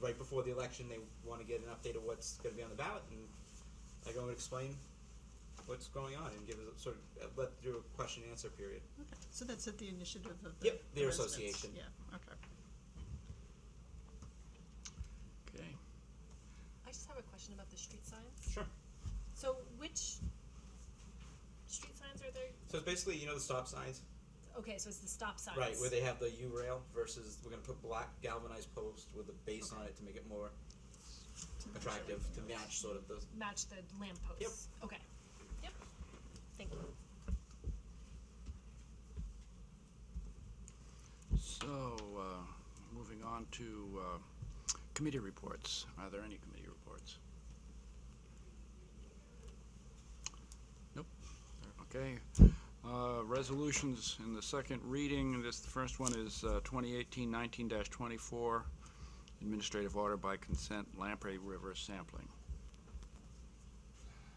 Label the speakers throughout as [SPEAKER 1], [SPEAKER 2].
[SPEAKER 1] right before the election, they want to get an update of what's going to be on the ballot, and I go and explain what's going on and give us a sort of uh, let do a question and answer period.
[SPEAKER 2] Okay, so that's at the initiative of the.
[SPEAKER 1] Yep, their
[SPEAKER 2] residents.
[SPEAKER 1] association.
[SPEAKER 2] Yeah, okay.
[SPEAKER 3] Okay.
[SPEAKER 4] I just have a question about the street signs.
[SPEAKER 1] Sure.
[SPEAKER 4] So which street signs are there?
[SPEAKER 1] So it's basically you know the stop signs,
[SPEAKER 4] Okay, so it's the stop signs.
[SPEAKER 1] right, where they have the U rail versus we're going to put black galvanized post with a base on it to make it more attractive to match sort of the
[SPEAKER 4] match the lampposts. Yep. Okay. Yep. Thank you.
[SPEAKER 3] So, uh, moving on to uh, committee reports. Are there any committee reports? Nope. Okay. Uh, Resolutions in the second reading. This, the first one is uh, 2018-19-24, administrative order by consent Lamprey River sampling.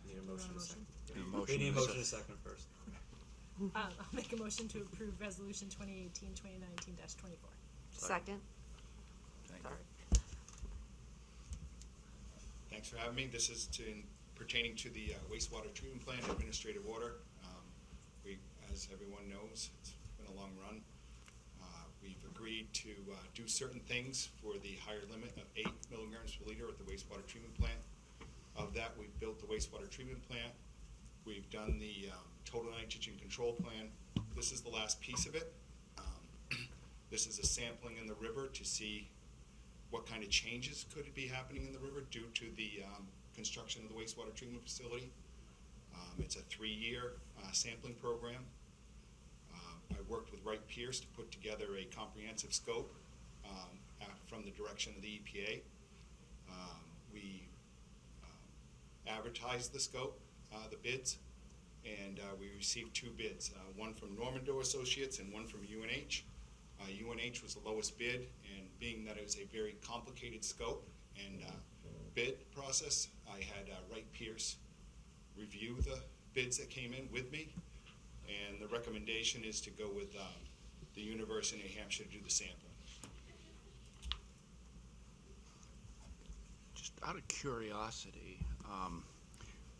[SPEAKER 1] need a motion. and a second.
[SPEAKER 3] Need a
[SPEAKER 1] We
[SPEAKER 3] motion
[SPEAKER 1] need a
[SPEAKER 3] and a
[SPEAKER 1] motion and a
[SPEAKER 3] sec-
[SPEAKER 1] second first.
[SPEAKER 4] Um, I'll make a motion to approve resolution 2018-2019-24.
[SPEAKER 5] Second.
[SPEAKER 3] Thank you.
[SPEAKER 5] Sorry.
[SPEAKER 6] Thanks for having me. This is to, pertaining to the uh, wastewater treatment plant administrative order. Um, We, as everyone knows, it's been a long run. Uh, We've agreed to uh, do certain things for the higher limit of eight milligrams per liter at the wastewater treatment plant. Of that, we've built the wastewater treatment plant. We've done the um, total nitrogen control plan. This is the last piece of it. Um, This is a sampling in the river to see what kind of changes could be happening in the river due to the um, construction of the wastewater treatment facility. Um, It's a three-year uh, sampling program. Um, I worked with Wright Pierce to put together a comprehensive scope um, af- from the direction of the EPA. Um, We um, advertised the scope, uh, the bids, and uh, we received two bids, uh, one from Normando Associates and one from UNH. Uh, UNH was the lowest bid, and being that it was a very complicated scope and uh, bid process, I had uh, Wright Pierce review the bids that came in with me, and the recommendation is to go with um, the University of New Hampshire to do the sampling.
[SPEAKER 3] Just out of curiosity, um,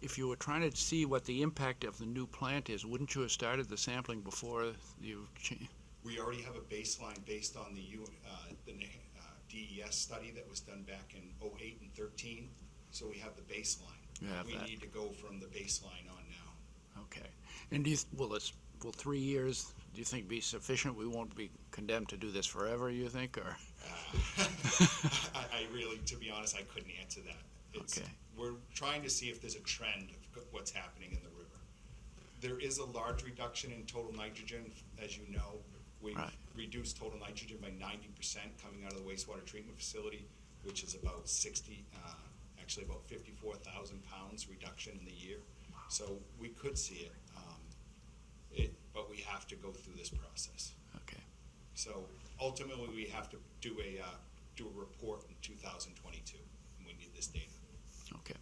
[SPEAKER 3] if you were trying to see what the impact of the new plant is, wouldn't you have started the sampling before you cha-
[SPEAKER 6] We already have a baseline based on the U, uh, the New- uh, DES study that was done back in '08 and '13, so we have the baseline.
[SPEAKER 3] You have that.
[SPEAKER 6] We need to go from the baseline on now.
[SPEAKER 3] Okay. And do you, th- will this, will three years, do you think be sufficient? We won't be condemned to do this forever, you think, or?
[SPEAKER 6] I, I really, to be honest, I couldn't answer that. It's,
[SPEAKER 3] Okay.
[SPEAKER 6] We're trying to see if there's a trend of g- what's happening in the river. There is a large reduction in total nitrogen, as you know. We
[SPEAKER 3] Right.
[SPEAKER 6] reduced total nitrogen by ninety percent coming out of the wastewater treatment facility, which is about sixty, uh, actually about fifty-four thousand pounds reduction in the year. So we could see it, um, it, but we have to go through this process.
[SPEAKER 3] Okay.
[SPEAKER 6] So ultimately, we have to do a, uh, do a report in 2022, and we need this data.
[SPEAKER 3] Okay.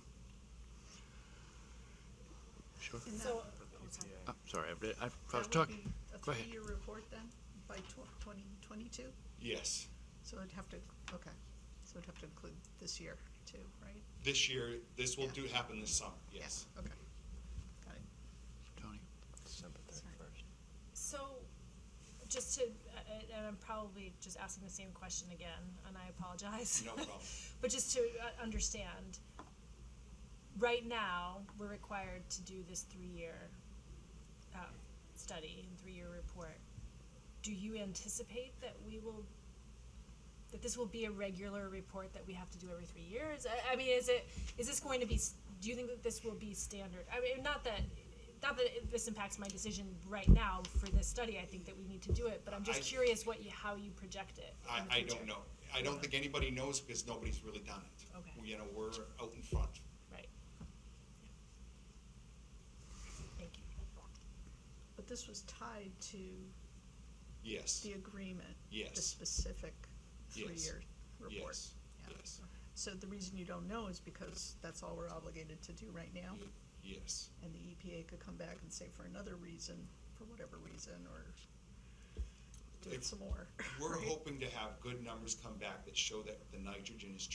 [SPEAKER 3] Sure.
[SPEAKER 7] And that-
[SPEAKER 4] So
[SPEAKER 3] Uh, sorry, I, I I was
[SPEAKER 7] that would
[SPEAKER 3] talking.
[SPEAKER 7] be a
[SPEAKER 3] Go ahead.
[SPEAKER 7] three-year report then, by twenty twenty-two?
[SPEAKER 6] Yes,
[SPEAKER 7] So it'd have to, okay, so it'd have to include this year too, right?
[SPEAKER 6] this year, this will
[SPEAKER 7] Yeah.
[SPEAKER 6] do happen this summer, yes.
[SPEAKER 7] Yeah, Okay, got it.
[SPEAKER 3] Tony.
[SPEAKER 4] So, just to, uh, and I'm probably just asking the same question again, and I apologize.
[SPEAKER 6] No problem.
[SPEAKER 4] but just to uh, understand, right now we're required to do this three-year uh, study and three-year report. Do you anticipate that we will? That this will be a regular report that we have to do every three years. I, I mean, is it is this going to be? s- Do you think that this will be standard? I mean, not that not that it- this impacts my decision right now for this study. I think that we need to do it, but I'm just
[SPEAKER 6] I-
[SPEAKER 4] curious what you how you project it. in the
[SPEAKER 6] I, I
[SPEAKER 4] future.
[SPEAKER 6] don't know. I don't think anybody knows because nobody's really done it.
[SPEAKER 4] Okay.
[SPEAKER 6] You know, we're out in front.
[SPEAKER 4] Right. Thank you.
[SPEAKER 7] But this was tied to
[SPEAKER 6] Yes,
[SPEAKER 7] the agreement? The
[SPEAKER 6] Yes.
[SPEAKER 7] specific
[SPEAKER 6] Yes.
[SPEAKER 7] three-year report?
[SPEAKER 6] yes,
[SPEAKER 7] Yeah.
[SPEAKER 6] yes,
[SPEAKER 7] So the reason you don't know is because that's all we're obligated to do right now?
[SPEAKER 6] y- yes.
[SPEAKER 7] And the EPA could come back and say for another reason, for whatever reason, or do it
[SPEAKER 6] If-
[SPEAKER 7] some more.
[SPEAKER 6] We're
[SPEAKER 7] right?
[SPEAKER 6] hoping to have good numbers come back that show that the nitrogen is